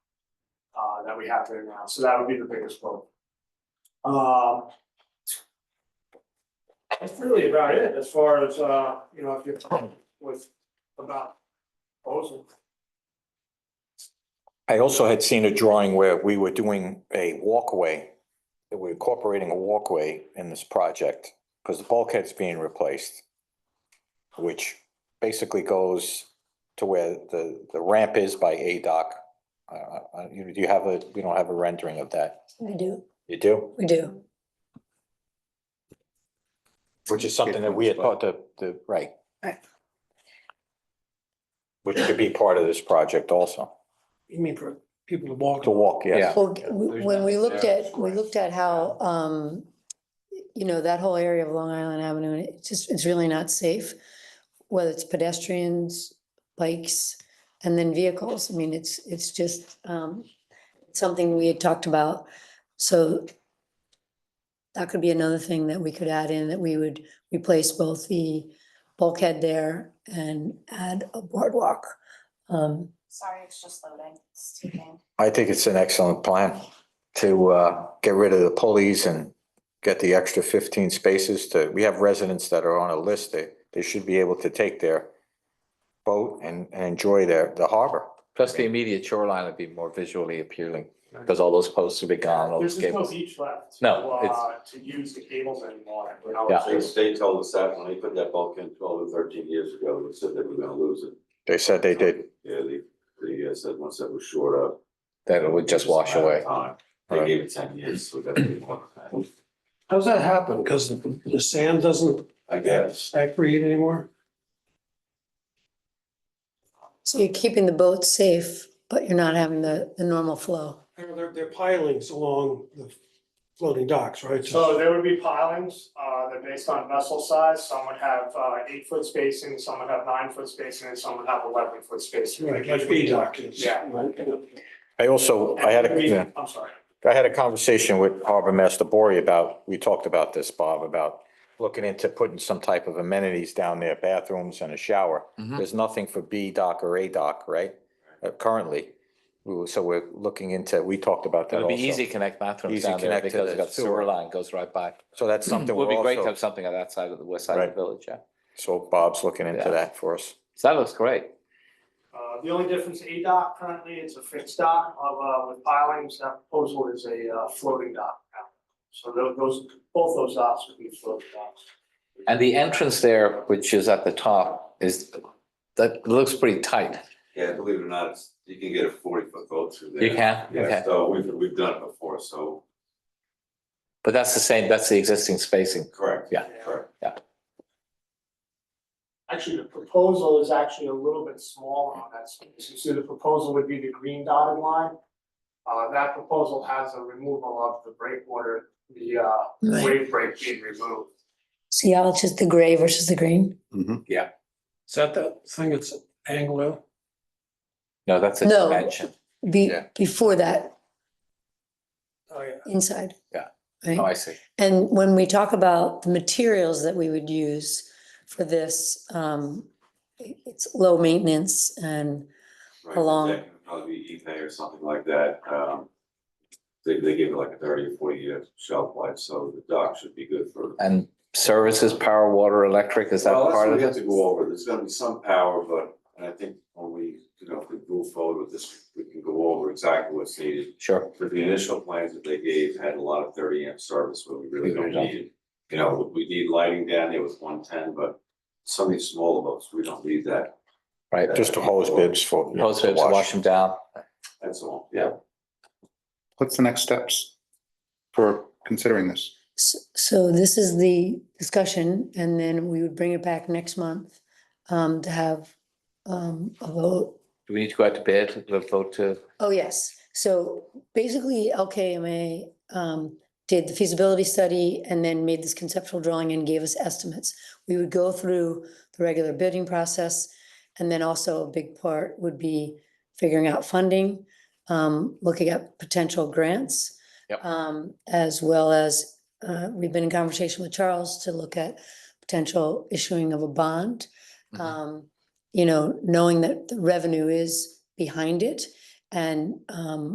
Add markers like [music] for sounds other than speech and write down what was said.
uh, that we have there now, so that would be the biggest vote. Um. That's really about it, as far as, uh, you know, if you're with about proposal. I also had seen a drawing where we were doing a walkway, that we're incorporating a walkway in this project, because the bulkhead's being replaced, which basically goes to where the, the ramp is by A dock. Uh, uh, you, do you have a, you don't have a rendering of that? We do, You do? we do. Which is something that we had thought the, the, right. Right. Which could be part of this project also, You mean for people to walk? to walk, yes. Well, g- w- when we looked at, we looked at how, um, you know, that whole area of Long Island Avenue, and it's just, it's really not safe. Whether it's pedestrians, bikes, and then vehicles. I mean, it's, it's just, um, something we had talked about. So that could be another thing that we could add in, that we would replace both the bulkhead there and add a boardwalk. Um, Sorry, it's just loading, it's taking. I think it's an excellent plan to uh get rid of the pulleys and get the extra fifteen spaces to, we have residents that are on a list, they they should be able to take their boat and and enjoy their the harbor. Plus the immediate shoreline would be more visually appealing because all those posts would be gone, all There's those just no cables. beach left. to, No, uh, To use the cables anymore, you know, Yeah. They, it's- they told us that when they put that bulk in twelve or thirteen years ago, they said they were gonna lose it. They said they did. Yeah, they, they uh, said once that was short up. Then it would just wash away. Time. They gave it ten years, so that didn't work. How does that happen? Because the the sand doesn't I guess. aggregate anymore? So you're keeping the boat safe, but you're not having the, the normal flow. They're, they're- they're pilings along the floating docks, right? So there would be pilings, uh, they're based on vessel size, some would have, uh, eight foot spacing, some would have nine foot spacing, and some would have eleven foot spacing. Right, like Oh, B dock is. Yeah. Right. I also, I had a, We- yeah. I'm sorry. I had a conversation with Harbor Master Bory about, we talked about this, Bob, about looking into putting some type of amenities down there, bathrooms and a shower. Mhm. There's nothing for B dock or A dock, right? Uh, Currently, we were- so we're looking into, we talked about It that would be also. easy to connect bathrooms Easy down there connect to because the it's got sewer. sewer line goes right by. So [clears throat] that's It [clears throat] something would we're be great to have also, something on that side of the west side of Right. the village, yeah. so Bob's looking into Yeah. that for us. So that looks great. Uh, the only difference, A dock currently, it's a fixed dock of, uh, with pilings, that proposal is a, uh, floating dock now. So tho- those, both those docks would be floating docks. And the entrance there, which is at the top, is, that looks pretty tight. Yeah, believe it or not, it's- you can get a forty foot boat through there. You can, Yeah, okay. so we've, we've done it before, so, But that's the same, that's the existing spacing. correct. Yeah. Correct. Actually, the proposal is actually a little bit smaller on that space. You see, the proposal would be the green dotted line. Uh, that proposal has a removal of the breakwater, the, uh, Right. wave break being removed. See how it's just the gray versus the green? Is that that thing that's Anglo? No, that's a No. dimension. Be, Yeah. before that, Oh, yeah. inside. Yeah. Right? Oh, I see. And when we talk about the materials that we would use for this, um, i- it's low maintenance and, Right, How long? that could Probably be eBay or something like that, um. They, they give it like a thirty or forty year shelf life, so the dock should be good for. And services, power, water, electric, is that Well, that's part what of we it? have to go over, there's gonna be some power, but, and I think when we, you know, if we move forward with this, we can go over exactly what's needed. Sure. But the initial plans that they gave had a lot of thirty amp service, where we really don't need it. You know, we need lighting down there with one ten, but some of these smaller boats, we don't need that, Right. Just the hose bibs for. Hose to waves, wash them down. that's all, yeah. What's the next steps for considering this? s- so this is the discussion and then we would bring it back next month, um, to have, um, a vote Do we need to go out to bid, the vote to, Oh, yes. So basically LKMA um, did the feasibility study and then made this conceptual drawing and gave us estimates. We would go through the regular bidding process. And then also a big part would be figuring out funding, um, looking at potential grants. Yep. um, As well as, uh, we've been in conversation with Charles to look at potential issuing of a bond. Mhm. Um, You know, knowing that the revenue is behind it. And um,